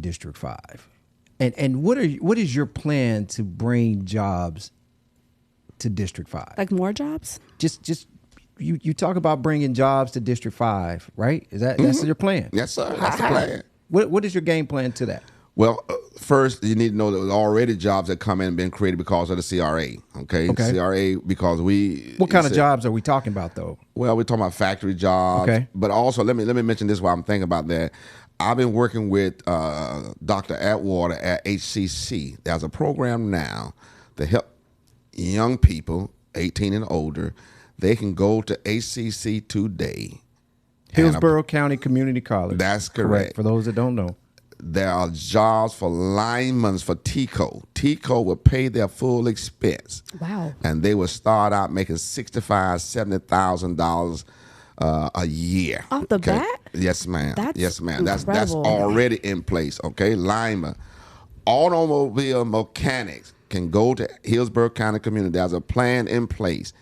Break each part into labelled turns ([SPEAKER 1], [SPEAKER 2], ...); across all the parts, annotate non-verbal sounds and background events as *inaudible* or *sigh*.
[SPEAKER 1] District Five? And and what are you- what is your plan to bring jobs to District Five?
[SPEAKER 2] Like more jobs?
[SPEAKER 1] just just you you talk about bringing jobs to District Five, right? Is that
[SPEAKER 3] Mm-hmm.
[SPEAKER 1] that's your plan?
[SPEAKER 3] Yes, sir. That's the plan.
[SPEAKER 1] What what is your game plan to that?
[SPEAKER 3] Well, uh, first you need to know that there's already jobs that come in and been created because of the CRA. Okay,
[SPEAKER 1] Okay.
[SPEAKER 3] CRA because we
[SPEAKER 1] What kind of
[SPEAKER 3] it's a-
[SPEAKER 1] jobs are we talking about though?
[SPEAKER 3] Well, we're talking about factory jobs,
[SPEAKER 1] Okay.
[SPEAKER 3] but also let me let me mention this while I'm thinking about that. I've been working with uh, Dr. Atwater at HCC. There's a program now to help young people, 18 and older, they can go to HCC today.
[SPEAKER 1] Hillsborough County Community College.
[SPEAKER 3] That's correct.
[SPEAKER 1] For those that don't know,
[SPEAKER 3] There are jobs for linemen for TCO. TCO will pay their full expense.
[SPEAKER 2] Wow.
[SPEAKER 3] and they would start out making sixty-five, seventy thousand dollars uh, a year.
[SPEAKER 2] Off the bat?
[SPEAKER 3] Yes, ma'am.
[SPEAKER 2] That's
[SPEAKER 3] yes, ma'am. That's that's
[SPEAKER 2] incredible.
[SPEAKER 3] already in place. Okay, Lima, automobile mechanics can go to Hillsborough County Community. There's a plan in place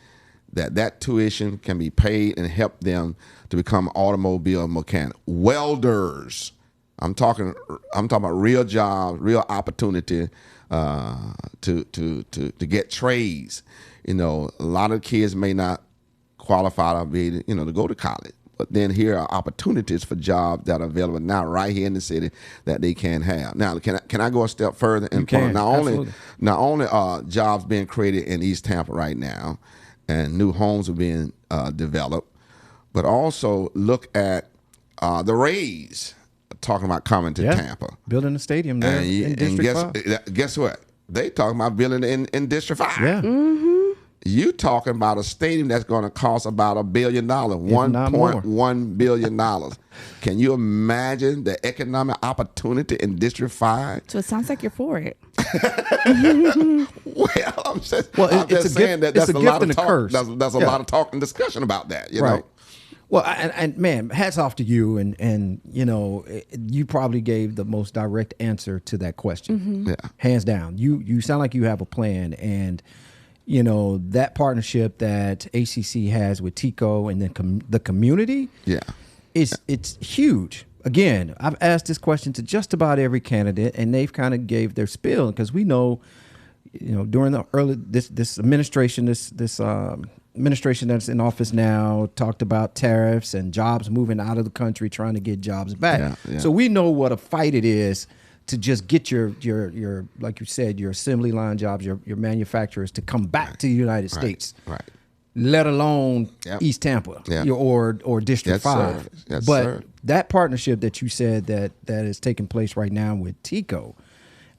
[SPEAKER 3] that that tuition can be paid and help them to become automobile mechanic welders. I'm talking. I'm talking about real jobs, real opportunity uh, to to to to get trades. You know, a lot of kids may not qualified to be, you know, to go to college. But then here are opportunities for jobs that are available now right here in the city that they can have. Now, can I, can I go a step further and
[SPEAKER 1] can,
[SPEAKER 3] point out not only
[SPEAKER 1] absolutely.
[SPEAKER 3] not only are jobs being created in East Tampa right now, and new homes are being uh, developed, but also look at uh, the Rays talking about coming to
[SPEAKER 1] yeah,
[SPEAKER 3] Tampa.
[SPEAKER 1] building a stadium there
[SPEAKER 3] And,
[SPEAKER 1] in
[SPEAKER 3] you- and
[SPEAKER 1] District
[SPEAKER 3] guess
[SPEAKER 1] Five.
[SPEAKER 3] uh, guess what? They talking about building in, in District Five.
[SPEAKER 1] Yeah,
[SPEAKER 3] You talking about a stadium that's going to cost about a billion dollars, one
[SPEAKER 1] not more.
[SPEAKER 3] point one billion dollars. Can you imagine the economic opportunity in District Five? *laughs*
[SPEAKER 2] So it sounds like you're for it.
[SPEAKER 3] Well, I'm just,
[SPEAKER 1] Well, it-
[SPEAKER 3] I'm
[SPEAKER 1] it's
[SPEAKER 3] just
[SPEAKER 1] a
[SPEAKER 3] saying
[SPEAKER 1] gift-
[SPEAKER 3] that
[SPEAKER 1] it's
[SPEAKER 3] that's
[SPEAKER 1] a
[SPEAKER 3] a,
[SPEAKER 1] gift
[SPEAKER 3] lot of
[SPEAKER 1] and a
[SPEAKER 3] talk.
[SPEAKER 1] curse.
[SPEAKER 3] That's, that's a
[SPEAKER 1] Yeah.
[SPEAKER 3] lot of talk and discussion about that. You
[SPEAKER 1] right.
[SPEAKER 3] know,
[SPEAKER 1] Well, I- and, and man, hats off to you, and and you know, it- you probably gave the most direct answer to that question,
[SPEAKER 3] Yeah.
[SPEAKER 1] hands down. You you sound like you have a plan, and you know that partnership that ACC has with Tico and then com- the community,
[SPEAKER 3] Yeah.
[SPEAKER 1] it's it's huge. Again, I've asked this question to just about every candidate, and they've kind of gave their spill because we know, you know, during the early this this administration, this this um, administration that's in office now talked about tariffs and jobs moving out of the country, trying to get jobs back.
[SPEAKER 3] Yeah, yeah.
[SPEAKER 1] So we know what a fight it is to just get your your your like you said your assembly line jobs, your your manufacturers to come back to the United States
[SPEAKER 3] right.
[SPEAKER 1] let alone
[SPEAKER 3] Yep.
[SPEAKER 1] East Tampa
[SPEAKER 3] Yeah.
[SPEAKER 1] your- or or District
[SPEAKER 3] Yes, sir.
[SPEAKER 1] Five.
[SPEAKER 3] Yes,
[SPEAKER 1] but
[SPEAKER 3] sir.
[SPEAKER 1] that partnership that you said that that is taking place right now with Tico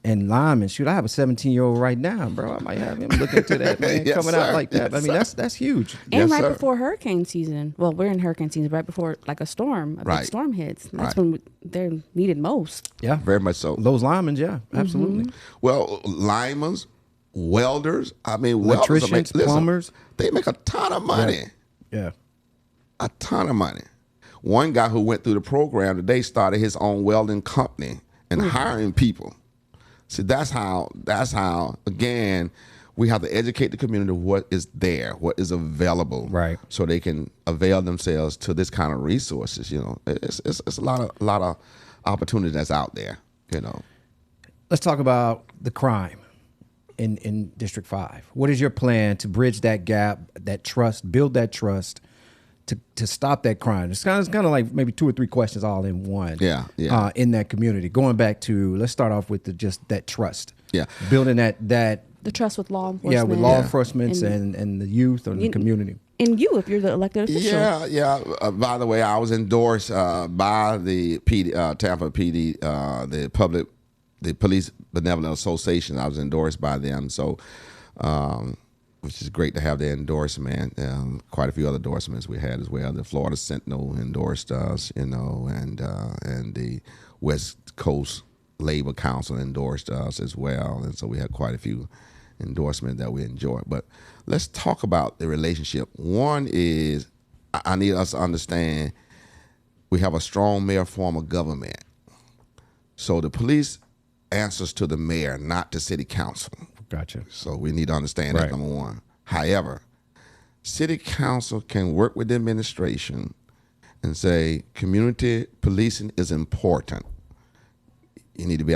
[SPEAKER 1] and Lyman, shoot, I have a 17 year old right now, bro. I might have him looking to
[SPEAKER 3] *laughs*
[SPEAKER 1] that man
[SPEAKER 3] Yes,
[SPEAKER 1] coming
[SPEAKER 3] sir.
[SPEAKER 1] out like that. I
[SPEAKER 3] Yes,
[SPEAKER 1] mean, that's that's huge.
[SPEAKER 2] And
[SPEAKER 3] Yes,
[SPEAKER 2] right
[SPEAKER 3] sir.
[SPEAKER 2] before hurricane season. Well, we're in hurricane season, right before like a storm, a
[SPEAKER 3] Right.
[SPEAKER 2] big storm hits. That's
[SPEAKER 3] Right.
[SPEAKER 2] when we- they're needed most.
[SPEAKER 1] Yeah,
[SPEAKER 3] very much so.
[SPEAKER 1] those linemen, yeah, absolutely.
[SPEAKER 3] Well, linemen, welders. I mean, welders are
[SPEAKER 1] Electricians, plumbers.
[SPEAKER 3] They make a ton of money.
[SPEAKER 1] Yeah,
[SPEAKER 3] a ton of money. One guy who went through the program today started his own welding company and hiring people. See, that's how. That's how. Again, we have to educate the community what is there, what is available,
[SPEAKER 1] Right.
[SPEAKER 3] So they can avail themselves to this kind of resources. You know, it's it's, it's a lot of lot of opportunity that's out there. You know,
[SPEAKER 1] let's talk about the crime in in District Five. What is your plan to bridge that gap, that trust, build that trust? To, to stop that crime, it's kind of it's kind of like maybe two or three questions all in one.
[SPEAKER 3] Yeah, yeah.
[SPEAKER 1] Uh, in that community, going back to let's start off with the, just that trust.
[SPEAKER 3] Yeah.
[SPEAKER 1] building that that
[SPEAKER 2] The trust with law enforcement.
[SPEAKER 1] yeah with law enforcement
[SPEAKER 2] and,
[SPEAKER 1] and and the youth and the community.
[SPEAKER 2] and you, if you're the elected official.
[SPEAKER 3] Yeah, yeah. Uh, by the way, I was endorsed uh, by the PD, uh, Tampa PD, uh, the public, the Police Benevolent Association. I was endorsed by them, so um, which is great to have their endorsement. Um, quite a few other endorsements we had as well. The Florida Sentinel endorsed us, you know, and uh, and the West Coast Labor Council endorsed us as well, and so we had quite a few endorsement that we enjoy. But let's talk about the relationship. One is I I need us to understand we have a strong mayor form of government. So the police answers to the mayor, not the city council.
[SPEAKER 1] Gotcha.
[SPEAKER 3] So we need to understand
[SPEAKER 1] Right.
[SPEAKER 3] that number one. However, city council can work with the administration and say community policing is important you need to be